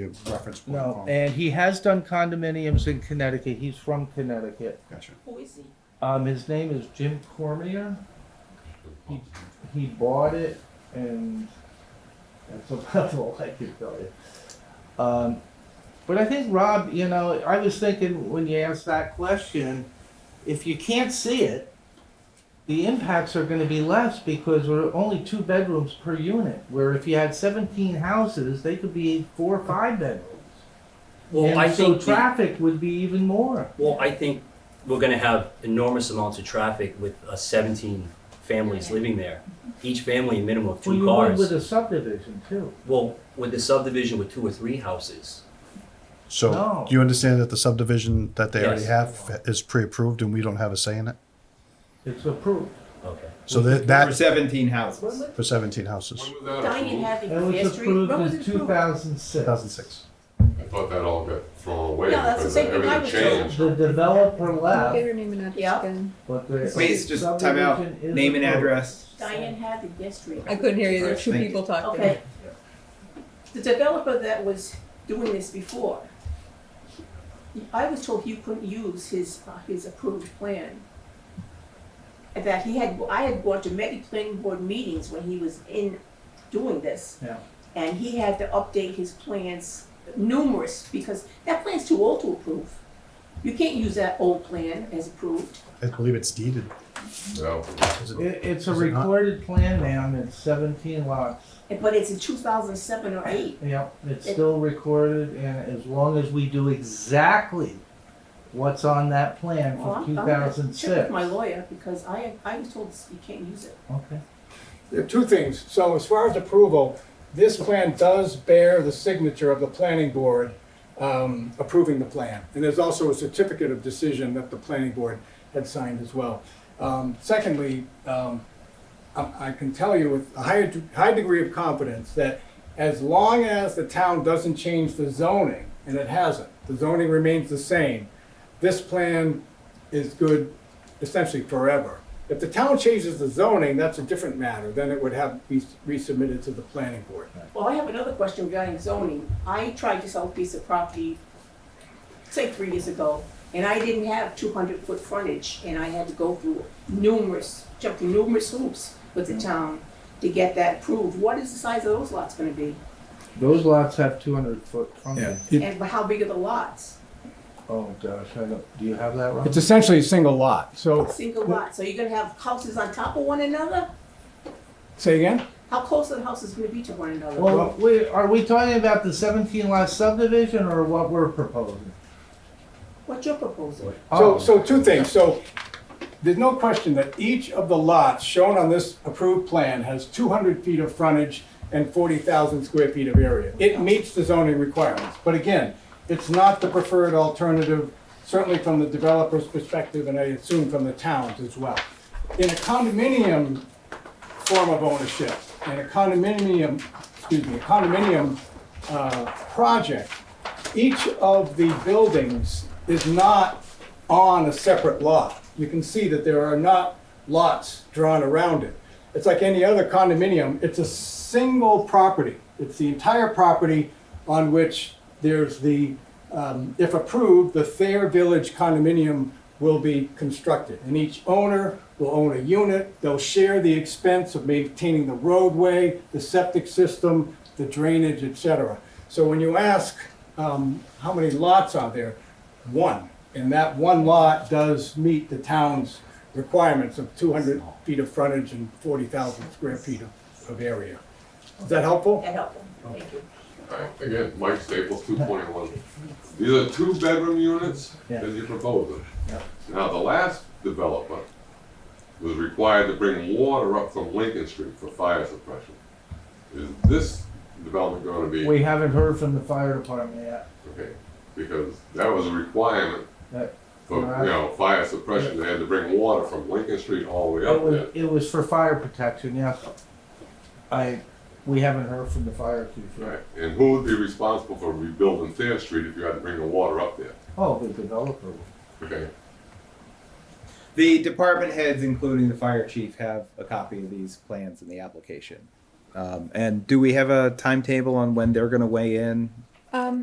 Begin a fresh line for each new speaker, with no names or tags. you reference point.
No,
phone.
um,
and he has done condominiums in Connecticut. He's from Connecticut.
Gotcha.
Who is he?
Um, his name is Jim Cormier. He, he bought it, and that's about all I can tell you. Um, but I think Rob, you know, I was thinking when you asked that question, if you can't see it, the impacts are going to be less because we're only two bedrooms per unit. Where if you had 17 houses, they could be four or five bedrooms.
Well, I
and so
think, the-
traffic would be even more.
well, I think we're gonna have enormous amounts of traffic with uh, seventeen families living there. Each family, a minimum of
Well,
two
you would with
cars.
a subdivision too.
Well, with the subdivision with two or three houses,
No.
So, do you understand that the subdivision that they already
Yes.
have is pre-approved and we don't have a say in it?
It's approved.
okay.
So that,
for
that,
seventeen
When
houses.
was
for seventeen houses,
Diane having
It was
Fair Street?
approved
When was
in
it
two
approved?
thousand six.
two thousand six.
I thought that all got thrown away
No, that's the
because
same thing I
everything
was
changed.
The developer
Get
left,
her name and address
Yeah.
again.
but the.
Please, just time out.
subdivision is
Name and
approved.
address.
Diane having Fair Street.
I couldn't hear you. There were two
Thank you.
people talking.
Okay. The developer that was doing this before, he- I was told he couldn't use his, uh, his approved plan. And That he had, I had gone to many planning board meetings when he was in doing this.
Yeah.
And he had to update his plans numerous, because that plan's too old to approve. You can't use that old plan as approved.
I believe it's deeded.
No.
Is it-
It, it's a
Is it not?
recorded plan now and it's seventeen lots.
But it's in two thousand seven or eight.
Yep, it's
It-
still recorded and as long as we do exactly what's on that plan from
Well, Oh, I'm-
two
I'm gonna
thousand six.
Check with my lawyer, because I, I was told you can't use it.
Okay.
There are two things. So as far as approval, this plan does bear the signature of the planning board um, approving the plan. And there's also a certificate of decision that the planning board had signed as well. Um, Secondly, um, I I can tell you with a high, high degree of confidence that as long as the town doesn't change the zoning, and it hasn't, the zoning remains the same, this plan is good essentially forever. If the town changes the zoning, that's a different matter, then it would have be resubmitted to the planning board.
Well, I have another question regarding zoning. I tried to sell a piece of property, say, three years ago, and I didn't have two hundred foot frontage, and I had to go through numerous, jump through numerous hoops with the town to get that approved. What is the size of those lots gonna be?
Those lots have two hundred foot frontage.
It-
And how big are the lots?
Oh gosh, I don't, do you have that wrong?
It's essentially a single lot, so,
Single lots, so you're gonna have houses on top of one another?
say again?
How close are the houses gonna be to one another?
Well, we, are we talking about the seventeen lot subdivision or what we're proposing?
What's your proposal?
Oh.
So, so two things, so there's no question that each of the lots shown on this approved plan has two hundred feet of frontage and forty thousand square feet of area. It meets the zoning requirements, but again, it's not the preferred alternative, certainly from the developer's perspective, and I assume from the town's as well. In a condominium form of ownership, in a condominium, excuse me, a condominium, uh, project, each of the buildings is not on a separate lot. You can see that there are not lots drawn around it. It's like any other condominium, it's a single property. It's the entire property on which there's the, um, if approved, the Thayer Village condominium will be constructed. And each owner will own a unit, they'll share the expense of maintaining the roadway, the septic system, the drainage, et cetera. So when you ask, um, how many lots are there? One. And that one lot does meet the town's requirements of two hundred feet of frontage and forty thousand square feet of, of area. Is that helpful?
That helpful, thank you.
Alright, Again, Mike Staples, two point one. These are two bedroom units
Yeah.
as you propose them.
Yeah.
Now, the last developer was required to bring water up from Lincoln Street for fire suppression. Is this development gonna be?
We haven't heard from the fire department yet.
Okay, because that was a requirement
That-
for, you know, fire suppression, they had to bring water from Lincoln Street all the way
oh, It
up
was,
there.
it was for fire protection, yes. I, we haven't heard from the fire chief
Right,
yet.
and who would be responsible for rebuilding Fair Street if you had to bring the water up there?
Oh, the developer.
Okay,
The department heads, including the fire chief, have a copy of these plans in the application. Um, and do we have a timetable on when they're gonna weigh in?
Um,